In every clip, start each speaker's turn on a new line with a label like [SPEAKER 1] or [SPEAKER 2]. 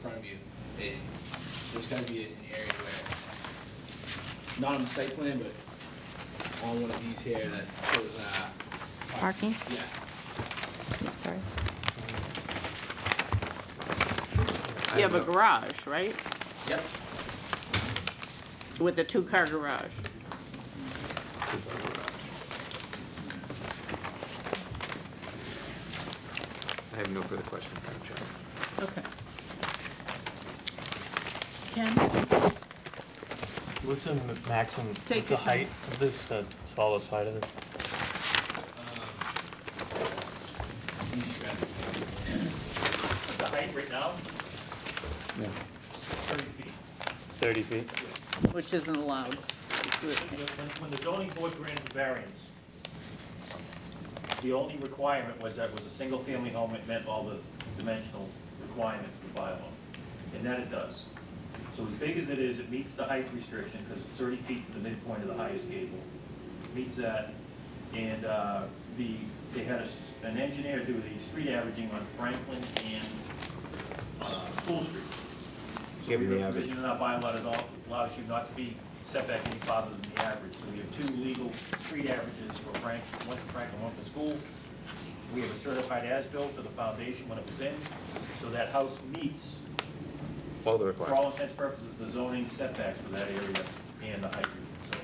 [SPEAKER 1] in front of you, it's, there's gotta be an area where, not on the site plan, but on one of these here that shows, uh.
[SPEAKER 2] Parking?
[SPEAKER 1] Yeah,
[SPEAKER 2] No, sorry.
[SPEAKER 3] You have a garage, right?
[SPEAKER 1] yep,
[SPEAKER 3] With a two-car garage.
[SPEAKER 4] I have no further questions, Madam Chair.
[SPEAKER 3] Okay. Ken?
[SPEAKER 5] What's the maximum,
[SPEAKER 3] Take
[SPEAKER 5] what's the
[SPEAKER 3] your time.
[SPEAKER 5] height of this, the taller side of this?
[SPEAKER 1] Um, you got it.
[SPEAKER 6] The height right now,
[SPEAKER 4] No.
[SPEAKER 6] thirty feet.
[SPEAKER 5] 30 feet?
[SPEAKER 3] Which isn't allowed. It's
[SPEAKER 6] When, when the zoning board granted the variance, the only requirement was that it was a single-family home, it meant all the dimensional requirements of the bylaw, and that it does. So as big as it is, it meets the height restriction, because it's thirty feet to the midpoint of the highest gable. Meets that, and, uh, the, they had a s an engineer do the street averaging on Franklin and, uh, School Street. So
[SPEAKER 4] Give
[SPEAKER 6] we
[SPEAKER 4] them the
[SPEAKER 6] have a
[SPEAKER 4] average.
[SPEAKER 6] provision in our bylaw that al- allows you not to be set back any farther than the average. So we have two legal street averages for Frank, one for Franklin, one for school. We have a certified as-built for the foundation when it was in, so that house meets,
[SPEAKER 4] All the
[SPEAKER 6] for all
[SPEAKER 4] requirements.
[SPEAKER 6] intents and purposes, the zoning setbacks for that area and the height. So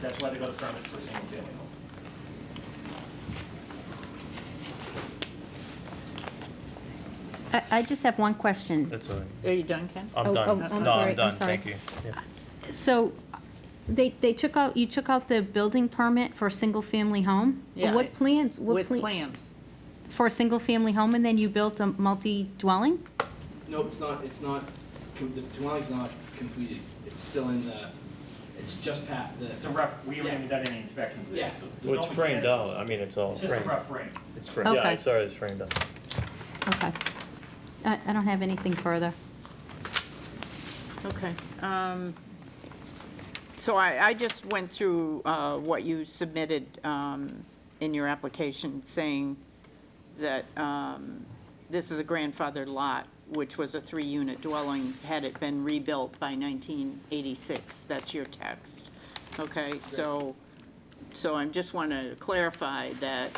[SPEAKER 6] that's why they got a permit for a single-family home.
[SPEAKER 2] I, I just have one question.
[SPEAKER 5] That's all right.
[SPEAKER 3] Are you done, Ken?
[SPEAKER 2] Oh,
[SPEAKER 5] I'm
[SPEAKER 2] oh,
[SPEAKER 5] done.
[SPEAKER 2] I'm
[SPEAKER 5] No,
[SPEAKER 2] sorry, I'm
[SPEAKER 5] I'm done,
[SPEAKER 2] sorry.
[SPEAKER 5] thank you. Yeah.
[SPEAKER 2] So they, they took out, you took out the building permit for a single-family home?
[SPEAKER 3] Yeah.
[SPEAKER 2] What plans? what
[SPEAKER 3] With
[SPEAKER 2] plan-
[SPEAKER 3] plans.
[SPEAKER 2] For a single-family home, and then you built a multi-dwelling?
[SPEAKER 1] Nope, it's not, it's not, com- the dwelling's not completed, it's still in the, it's just past the,
[SPEAKER 6] It's a rough, we haven't even done any inspections there,
[SPEAKER 1] Yeah.
[SPEAKER 6] so. there's
[SPEAKER 5] Well,
[SPEAKER 6] no
[SPEAKER 5] it's framed
[SPEAKER 6] mechanical-
[SPEAKER 5] out, I mean, it's all
[SPEAKER 6] It's just a
[SPEAKER 5] framed.
[SPEAKER 6] rough frame.
[SPEAKER 5] It's framed, yeah,
[SPEAKER 2] Okay.
[SPEAKER 5] I saw it's framed out.
[SPEAKER 2] Okay. I, I don't have anything further.
[SPEAKER 3] Okay. um, So I, I just went through uh, what you submitted um, in your application, saying that um, this is a grandfathered lot, which was a three-unit dwelling, had it been rebuilt by 1986. That's your text. Okay, so, so I just want to clarify that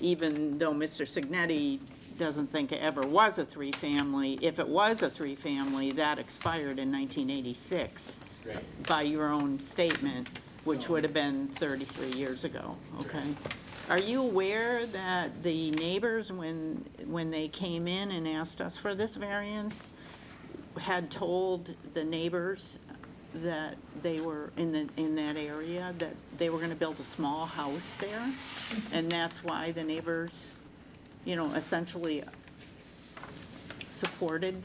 [SPEAKER 3] even though Mr. Signetti doesn't think it ever was a three-family, if it was a three-family, that expired in 1986
[SPEAKER 1] right,
[SPEAKER 3] by your own statement, which would have been 33 years ago, okay? Are you aware that the neighbors, when, when they came in and asked us for this variance, had told the neighbors that they were in the, in that area, that they were gonna build a small house there? And that's why the neighbors, you know, essentially supported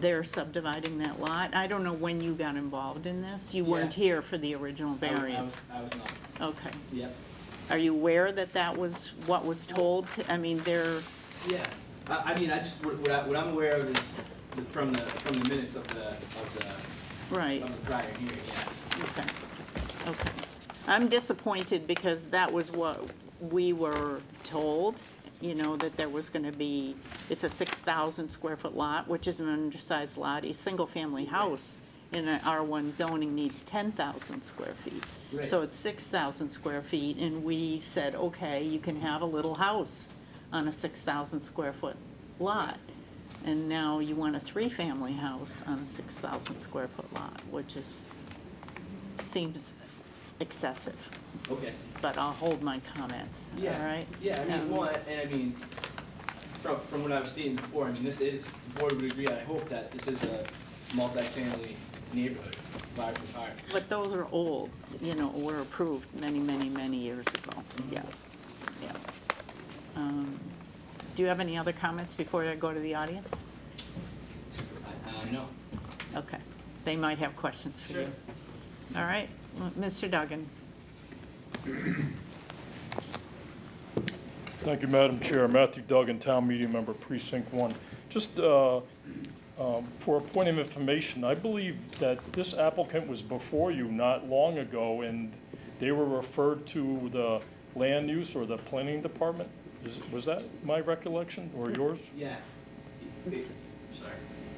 [SPEAKER 3] they're subdividing that lot. I don't know when you got involved in this. You weren't
[SPEAKER 1] Yeah.
[SPEAKER 3] here for the original
[SPEAKER 1] I was- I
[SPEAKER 3] variance.
[SPEAKER 1] was- I was not,
[SPEAKER 3] Okay.
[SPEAKER 1] yep.
[SPEAKER 3] Are you aware that that was what was told? to- I mean, they're,
[SPEAKER 1] Yeah, I, I mean, I just, what, what I- what I'm aware of is the- from the, from the minutes of the, of the,
[SPEAKER 3] right,
[SPEAKER 1] of the prior hearing, yeah.
[SPEAKER 3] okay, okay. I'm disappointed because that was what we were told, you know, that there was gonna be, it's a six thousand square foot lot, which is an undersized lot. A single-family house in an R one zoning needs ten thousand square feet.
[SPEAKER 1] Right.
[SPEAKER 3] So it's six thousand square feet, and we said, okay, you can have a little house on a six thousand square foot lot. And now you want a three-family house on a six thousand square foot lot, which is, seems excessive,
[SPEAKER 1] Okay.
[SPEAKER 3] but I'll hold my comments, all
[SPEAKER 1] Yeah.
[SPEAKER 3] right?
[SPEAKER 1] Yeah, I mean,
[SPEAKER 3] Um,
[SPEAKER 1] one, and I mean, from, from what I was stating before, I mean, this is, the board would agree, I hope that this is a multifamily neighborhood, large and hard.
[SPEAKER 3] But those are old, you know, were approved many, many, many years ago,
[SPEAKER 1] Mm-hmm.
[SPEAKER 3] yeah, yeah. Um, Do you have any other comments before I go to the audience?
[SPEAKER 1] Uh, no.
[SPEAKER 3] Okay, they might have questions for you. All right, well, Mr. Duggan,
[SPEAKER 7] Thank you, Madam Chair. Matthew Duggan, Town Meeting Member, Precinct One. Just uh, um, for a point of information, I believe that this applicant was before you not long ago, and they were referred to the land use or the planning department? Is- Was that my recollection or yours?
[SPEAKER 1] Yeah.
[SPEAKER 3] It's-
[SPEAKER 1] sorry.